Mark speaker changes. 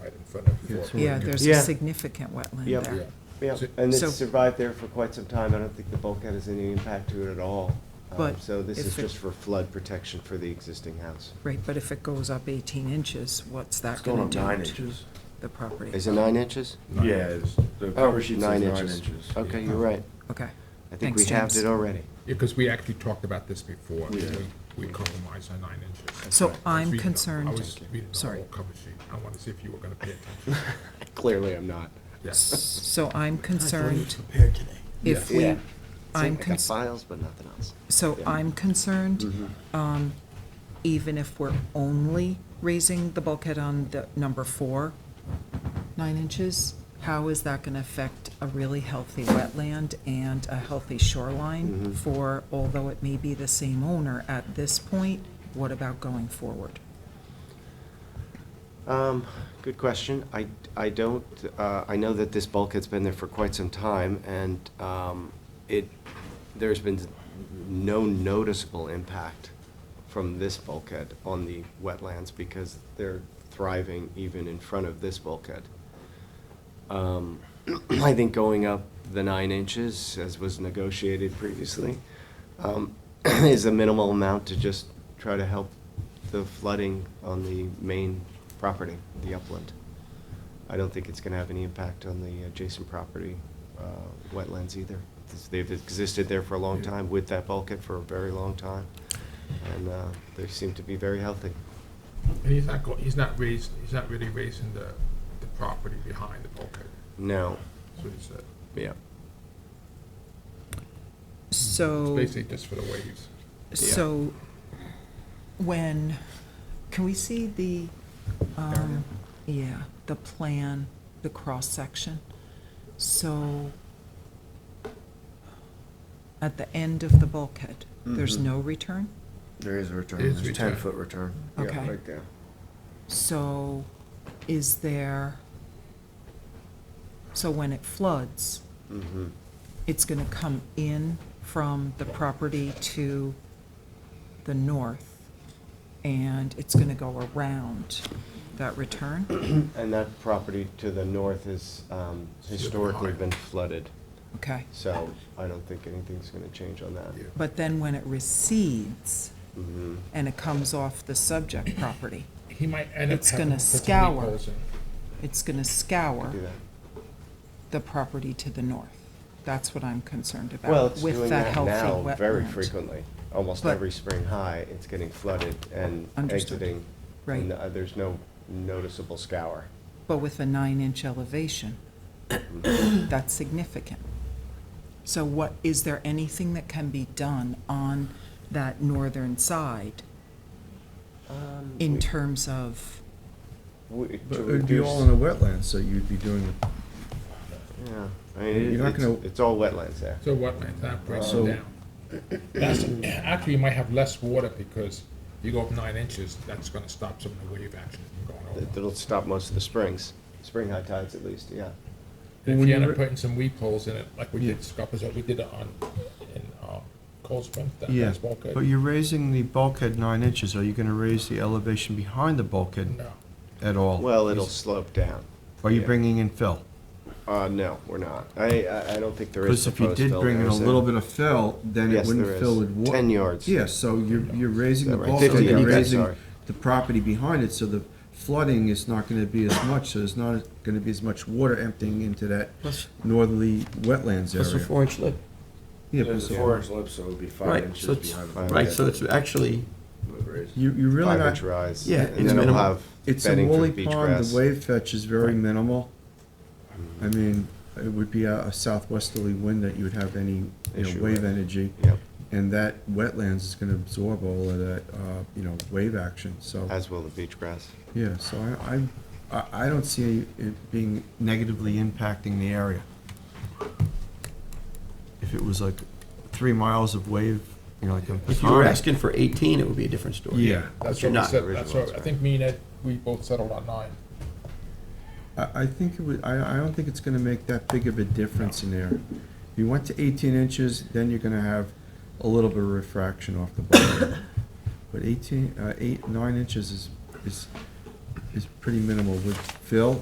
Speaker 1: front of the floor.
Speaker 2: Yeah, there's a
Speaker 3: Yeah.
Speaker 2: significant wetland
Speaker 3: Yep.
Speaker 1: Yeah.
Speaker 2: there.
Speaker 3: Yeah, and
Speaker 2: So-
Speaker 3: it's survived there for quite some time. I don't think the bulkhead has any impact to it at all. Um,
Speaker 2: But
Speaker 3: So this
Speaker 2: if
Speaker 3: is
Speaker 2: it-
Speaker 3: just for flood protection for the existing house.
Speaker 2: Right, but if it goes up 18 inches, what's
Speaker 4: It's
Speaker 2: that
Speaker 4: going
Speaker 2: going
Speaker 4: up
Speaker 2: to
Speaker 4: nine
Speaker 2: do to
Speaker 4: inches.
Speaker 2: the property?
Speaker 3: Is it nine inches?
Speaker 4: Yeah, it's, the
Speaker 3: Oh,
Speaker 4: cover sheet says nine inches. Uh,
Speaker 3: Okay, you're right.
Speaker 2: Okay.
Speaker 3: I think we
Speaker 2: Thanks,
Speaker 3: halved
Speaker 2: James.
Speaker 3: it already.
Speaker 1: Because we actually talked about this before,
Speaker 4: Yeah.
Speaker 1: we we compromised on nine inches.
Speaker 2: So
Speaker 1: I was
Speaker 2: I'm
Speaker 1: reading the-
Speaker 2: concerned-
Speaker 1: I was reading the
Speaker 2: Sorry.
Speaker 1: whole cover sheet, I wanted to see if you were gonna pay attention.
Speaker 3: Clearly, I'm not.
Speaker 1: Yes.
Speaker 2: So I'm concerned
Speaker 5: prepared today.
Speaker 2: if
Speaker 3: Yeah. Yeah.
Speaker 2: we,
Speaker 3: See,
Speaker 2: I'm
Speaker 3: I got
Speaker 2: concerned.
Speaker 3: files, but nothing else.
Speaker 2: So
Speaker 3: Yeah.
Speaker 2: I'm concerned, um, even if we're only raising the bulkhead on the number four, nine inches, how is that going to affect a really healthy wetland and a healthy shoreline for, although it may be the same owner at this point, what about going forward?
Speaker 3: Um, good question. I, I don't, uh, I know that this bulkhead's been there for quite some time, and, um, it, there's been no noticeable impact from this bulkhead on the wetlands, because they're thriving even in front of this bulkhead. Um, I think going up the nine inches, as was negotiated previously, um, is a minimal amount to just try to help the flooding on the main property, the upland. I don't think it's gonna have any impact on the adjacent property, uh, wetlands either. This- They've existed there for a long time with that bulkhead for a very long time, and, uh, they seem to be very healthy.
Speaker 1: And he's not, go- he's not raising, he's not really raising the, the property behind the bulkhead,
Speaker 3: No,
Speaker 1: that's what he said.
Speaker 3: yeah.
Speaker 1: It's
Speaker 2: So.
Speaker 1: basically just for the waves.
Speaker 2: So when, can we see the, um, yeah, the plan, the cross-section? So at the end of the bulkhead, there's no return?
Speaker 4: There is a return,
Speaker 1: There is
Speaker 4: there's
Speaker 1: return.
Speaker 4: ten foot return.
Speaker 3: Yeah,
Speaker 2: Okay.
Speaker 3: Right there.
Speaker 2: So is there, so when it floods,
Speaker 3: Mm-hmm.
Speaker 2: it's going to come in from the property to the north, and it's going to go around that return?
Speaker 3: And that property to the north has um, historically been flooded,
Speaker 2: Okay.
Speaker 3: so I don't think anything's going to change on that.
Speaker 1: Yeah.
Speaker 2: But then when it recedes
Speaker 3: Mhm.
Speaker 2: and it comes off the subject property,
Speaker 1: He might end up
Speaker 2: It's
Speaker 1: having
Speaker 2: gonna
Speaker 1: to put some leaf
Speaker 2: scour.
Speaker 1: holes in.
Speaker 2: it's going to scour
Speaker 3: Do that.
Speaker 2: the property to the north. That's what I'm concerned about.
Speaker 3: Well, it's
Speaker 2: with
Speaker 3: doing
Speaker 2: that
Speaker 3: that
Speaker 2: healthy
Speaker 3: now very
Speaker 2: wetland.
Speaker 3: frequently. Almost
Speaker 2: But-
Speaker 3: every spring high, it's getting flooded and
Speaker 2: Understood.
Speaker 3: exiting.
Speaker 2: Right.
Speaker 3: and, uh, There's no noticeable scour.
Speaker 2: But with a nine-inch elevation, that's significant. So what, is there anything that can be done on that northern side
Speaker 3: Um,
Speaker 2: in terms of,
Speaker 3: we- we-
Speaker 6: But
Speaker 3: to
Speaker 6: it would be all in the wetlands, so you'd be doing,
Speaker 3: reduce- Yeah, I mean,
Speaker 6: You're not
Speaker 3: it- it's,
Speaker 6: gonna-
Speaker 3: it's all wetlands there.
Speaker 1: So wetlands, that breaks it
Speaker 6: So-
Speaker 1: down. That's, actually, you might have less water because you go up nine inches, that's gonna stop some of the wave action from going
Speaker 3: It-
Speaker 1: over.
Speaker 3: It'll stop most of the springs, spring high tides at least, yeah.
Speaker 1: And If
Speaker 6: When
Speaker 1: you
Speaker 6: you
Speaker 1: end up
Speaker 6: re-
Speaker 1: putting some weep holes in it, like we
Speaker 6: Yeah.
Speaker 1: did Scuppers, we did it on, in, uh, Cold Spring, that
Speaker 6: yeah,
Speaker 1: that's all good.
Speaker 6: but you're raising the bulkhead nine inches, are you gonna raise the elevation behind the bulkhead
Speaker 1: No,
Speaker 6: at all?
Speaker 3: Well, it'll slope down.
Speaker 6: Are you
Speaker 3: yeah.
Speaker 6: bringing in fill?
Speaker 3: Uh, no, we're not. I, I, I don't think there is
Speaker 6: Because if you
Speaker 3: proposed
Speaker 6: did
Speaker 3: fill
Speaker 6: bring in
Speaker 3: there,
Speaker 6: a
Speaker 3: is there?
Speaker 6: little bit of fill, then it
Speaker 3: Yes, there
Speaker 6: wouldn't fill
Speaker 3: is.
Speaker 6: with water.
Speaker 3: 10 yards.
Speaker 6: Yeah, so you're, you're raising
Speaker 3: Is that
Speaker 6: the
Speaker 3: right?
Speaker 6: bulkhead,
Speaker 3: 50
Speaker 6: you're
Speaker 3: yards,
Speaker 6: raising
Speaker 3: sorry.
Speaker 6: the property behind it, so the flooding is not gonna be as much, so there's not gonna be as much water emptying into that northerly wetlands
Speaker 7: Plus a
Speaker 6: area.
Speaker 7: four-inch lip.
Speaker 6: Yeah,
Speaker 4: There's a
Speaker 6: plus-
Speaker 4: four inch lip, so it would be five
Speaker 7: Right, so
Speaker 4: inches
Speaker 7: it's-
Speaker 4: behind the
Speaker 3: Five
Speaker 7: Right,
Speaker 3: inches.
Speaker 4: bulkhead.
Speaker 7: so it's actually,
Speaker 4: Would raise.
Speaker 6: You, you really
Speaker 3: Five
Speaker 6: not,
Speaker 3: inch rise.
Speaker 7: Yeah,
Speaker 3: and
Speaker 7: it's
Speaker 3: then it'll
Speaker 7: minimal.
Speaker 3: have
Speaker 6: It's a
Speaker 3: bedding for the
Speaker 6: woolly
Speaker 3: beach
Speaker 6: pond,
Speaker 3: grass.
Speaker 6: the wave fetch is very minimal. I mean, it would be a a southwesterly wind that you would have any, you
Speaker 3: Issue
Speaker 6: know, wave
Speaker 3: with.
Speaker 6: energy.
Speaker 3: Yep,
Speaker 6: And that wetlands is gonna absorb all of that, uh, you know, wave action, so,
Speaker 7: Uh,
Speaker 3: as will the beach grass.
Speaker 6: yeah, so I, I- I, I don't see it being negatively impacting the area. If it was like three miles of wave, you know, like a
Speaker 7: if you were
Speaker 6: pond.
Speaker 7: asking for eighteen, it would be a different story.
Speaker 6: Yeah.
Speaker 1: that's
Speaker 7: you're
Speaker 1: what we
Speaker 7: not.
Speaker 1: said, that's
Speaker 3: Original,
Speaker 1: what, I think me and Ed, we both settled on nine.
Speaker 6: I, I think it would, I, I don't think it's gonna make that big of a difference in there. If you went to eighteen inches, then you're gonna have a little bit of refraction off the bottom. But eighteen, uh, eight, nine inches is, is, is pretty minimal with fill